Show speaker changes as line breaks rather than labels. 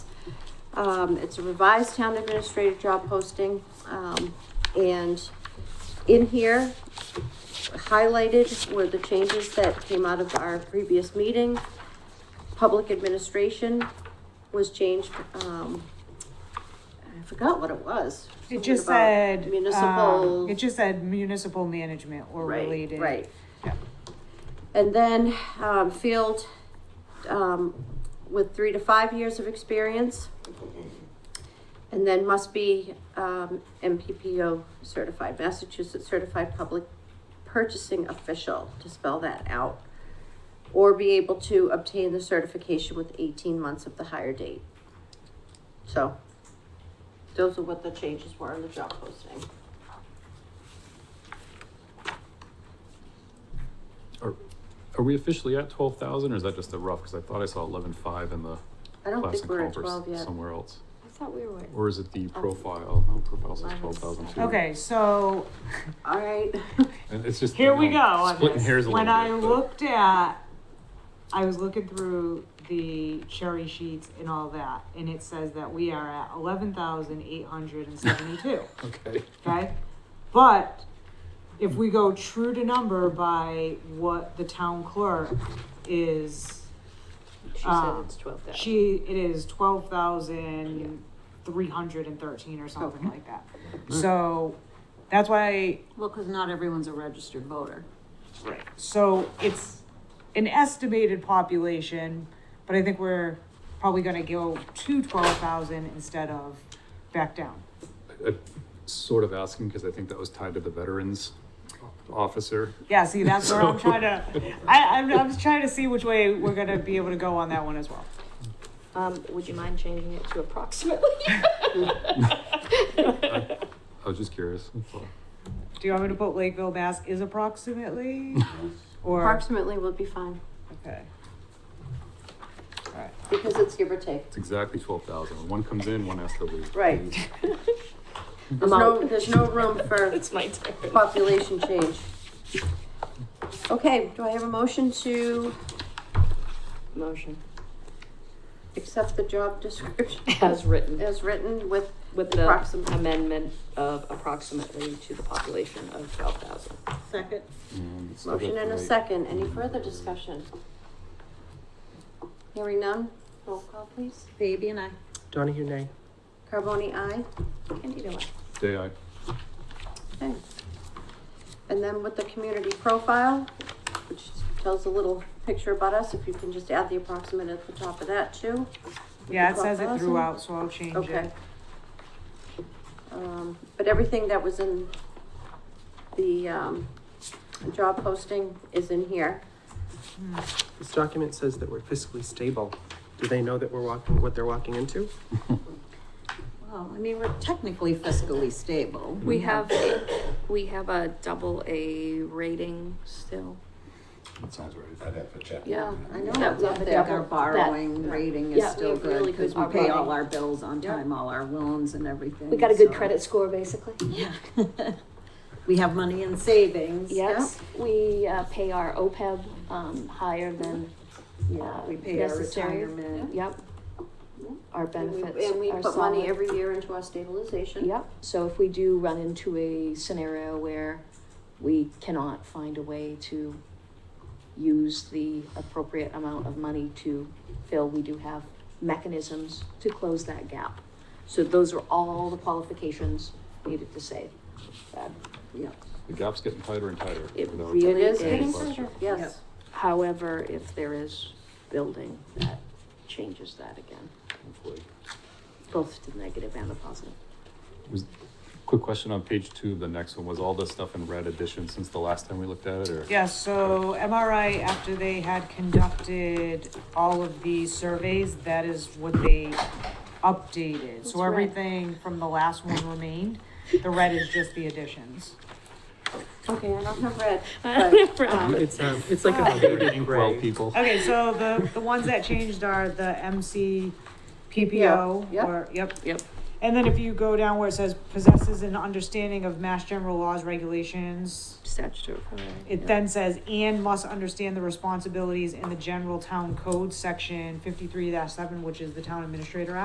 Um, it's a revised town administrative job posting, um, and in here, highlighted were the changes that came out of our previous meeting. Public administration was changed, um, I forgot what it was.
It just
Something about
said. um,
Municipal.
It just said municipal management or
Right,
related.
Right.
Yeah.
And then, um, field, um, with three to five years of experience. And then must be, um, MPPO certified, Massachusetts Certified Public Purchasing Official, to spell that out. Or be able to obtain the certification with eighteen months of the hire date. So, those are what the changes were in the job posting.
Are, are we officially at twelve thousand, or is that just a rough, because I thought I saw eleven-five in the
I don't
class
think
and
we're at
conference
twelve yet. Um,
somewhere else?
I thought we were.
Or is it the profile, no, profile says
Eleven.
twelve thousand two.
Okay, so
All right.
And it's just.
here
you
we
know,
go on
Splitting
this.
hairs a little
When
bit.
I
but-
looked at, I was looking through the cherry sheets and all that, and it says that we are at eleven thousand eight hundred and seventy-two.
Okay,
okay? But if we go true to number by what the town clerk is,
She said
Um,
it's twelve thousand.
she, it is twelve thousand three hundred and thirteen or something like that. So, that's why,
Well, because not everyone's a registered voter.
so it's an estimated population, but I think we're probably gonna go to twelve thousand instead of back down.
I- I'm sort of asking, because I think that was tied to the veterans officer.
Yeah, see, that's where I'm trying to, I, I'm, I'm just trying to see which way we're gonna be able to go on that one as well.
Um, would you mind changing it to approximately?
I was just curious, that's all.
Do you want me to put Lakeville, Mass is approximately? Or,
Approximately will be fine,
okay. Alright,
because it's give or take.
it's exactly twelve thousand. One comes in, one has to leave.
Right.
Mm-hmm.
There's no, there's no room for
It's my turn.
population change. Okay, do I have a motion to
Motion
accept the job description
as written
as written with,
with the
Approximate.
amendment of approximately to the population of twelve thousand.
Second.
And so
Motion
that's
and a
right.
second, any further discussion? Hearing none, roll call please.
Baby and I.
Donahue, nay.
Carboni, aye.
Candida, aye.
Day I,
Okay. And then with the community profile, which tells a little picture about us, if you can just add the approximate at the top of that too.
yeah, it says it
12,000.
throughout, so I'll change
Okay.
it.
Um, but everything that was in the, um, job posting is in here.
Hmm.
This document says that we're fiscally stable. Do they know that we're walking, what they're walking into?
Well, I mean, we're technically fiscally stable.
We have, a- we have a double A rating still.
that sounds right.
I'd have to check.
Yeah.
I know
That
it's
was
I
up
think
there.
our borrowing rating
yeah,
is
we
still
have really
good because we
good
pay all
borrowing.
our bills on
Yeah.
time, all our loans and everything.
We got a good
so-
credit score, basically.
We have money in savings.
Yes, we uh, pay our OPEB um, higher than,
Yeah, we pay our
Necessary.
retirement.
yep. Our
And we-
benefits
And we
are
put money
solid.
every year into our stabilization.
Yep, so if we do run into a scenario where we cannot find a way to use the appropriate amount of money to fill, we do have mechanisms to close that gap. So those are all the qualifications needed to say that.
Yeah.
The gap's getting tighter and tighter.
It
without-
It
really
is
is.
getting tighter, yes.
However, if there is building, that changes that again,
Hopefully.
both to the negative and the positive.
Was, quick question on page two, the next one, was all this stuff in red addition since the last time we looked at it, or?
Yeah, so MRI, after they had conducted all of the surveys, that is what they updated.
That's
So
right.
everything from the last one remained, the red is just the additions.
Okay, I don't have red, but, um,
It's, um, it's like a faded
Well,
gray.
people,
Okay, so the, the ones that changed are the MC PPO,
Yeah,
or, yep.
Yep.
And then if you go down where it says possesses an understanding of mass general laws, regulations,
Statutory.
it then says, and must understand the responsibilities in the general town code, section fifty-three seven, which is the town administrator act.